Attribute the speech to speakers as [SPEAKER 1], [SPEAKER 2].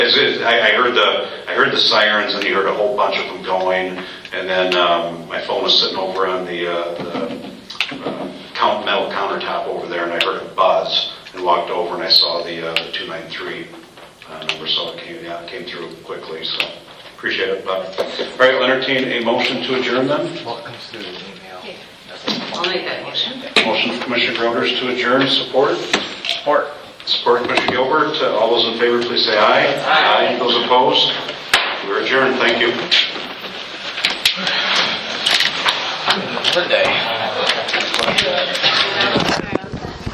[SPEAKER 1] I, I heard the, I heard the sirens and you heard a whole bunch of them going. And then, um, my phone was sitting over on the, uh, the uh, count, metal countertop over there and I heard a buzz and walked over and I saw the, uh, the 293 uh, number, so it came, yeah, it came through quickly, so appreciate it. But, all right, I'll entertain a motion to adjourn then.
[SPEAKER 2] What comes through the email?
[SPEAKER 3] I'll make that motion.
[SPEAKER 1] Motion from Commissioner Groders to adjourn, support? Support. Support Commissioner Gilbert. Uh, All those in favor, please say aye.
[SPEAKER 3] Aye.
[SPEAKER 1] Those opposed? We're adjourned, thank you.
[SPEAKER 2] Monday.